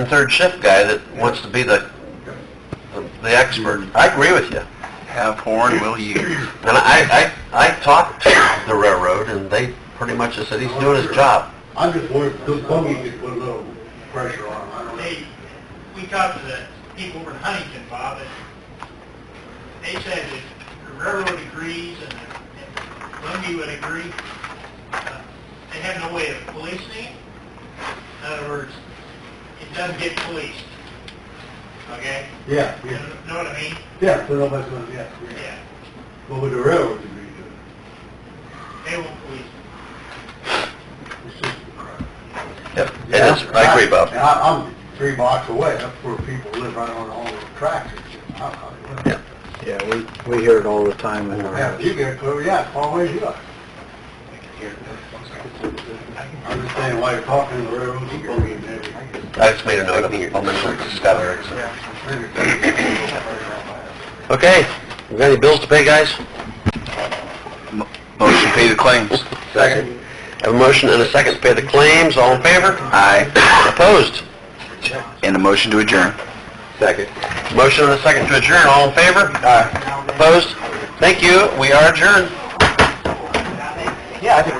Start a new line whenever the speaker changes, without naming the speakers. and third shift guy that wants to be the, the- the expert. I agree with you.
Have horn, will use.
And I, I, I talked to the railroad and they pretty much just said, he's doing his job.
I just want, those buggies to put a little pressure on them, I don't know.
They, we talked to the people over in Huntington, Bob, and they said that the railroad agrees and that Lundy would agree. Uh, They have no way of policing it. In other words, it doesn't get policed. Okay?
Yeah,
You
yeah,
Know what I mean?
yeah, so nobody's gonna, yeah, yeah.
Yeah.
But with the railroad degree,
They won't police it.
it's just a crap.
Yep, it is, I agree,
And
Bob.
I, I'm three blocks away, that's where people live right on all the tracks and shit. I- I-
Yeah.
Yeah, we, we hear it all the time in
Yeah, you get it clear, yeah, as far away as you like. I understand why you're talking to the railroad, you buggy and everything.
I just made a note of it, I'll mention it to Scott Erickson.
Yeah.
Okay, we got any bills to pay, guys?
Motion to pay the claims.
Second. Have a motion and a second to pay the claims, all in favor?
Aye.
Opposed?
And a motion to adjourn.
Second. Motion and a second to adjourn, all in favor? Aye. Opposed? Thank you, we are adjourned.
Now they-
Yeah, I think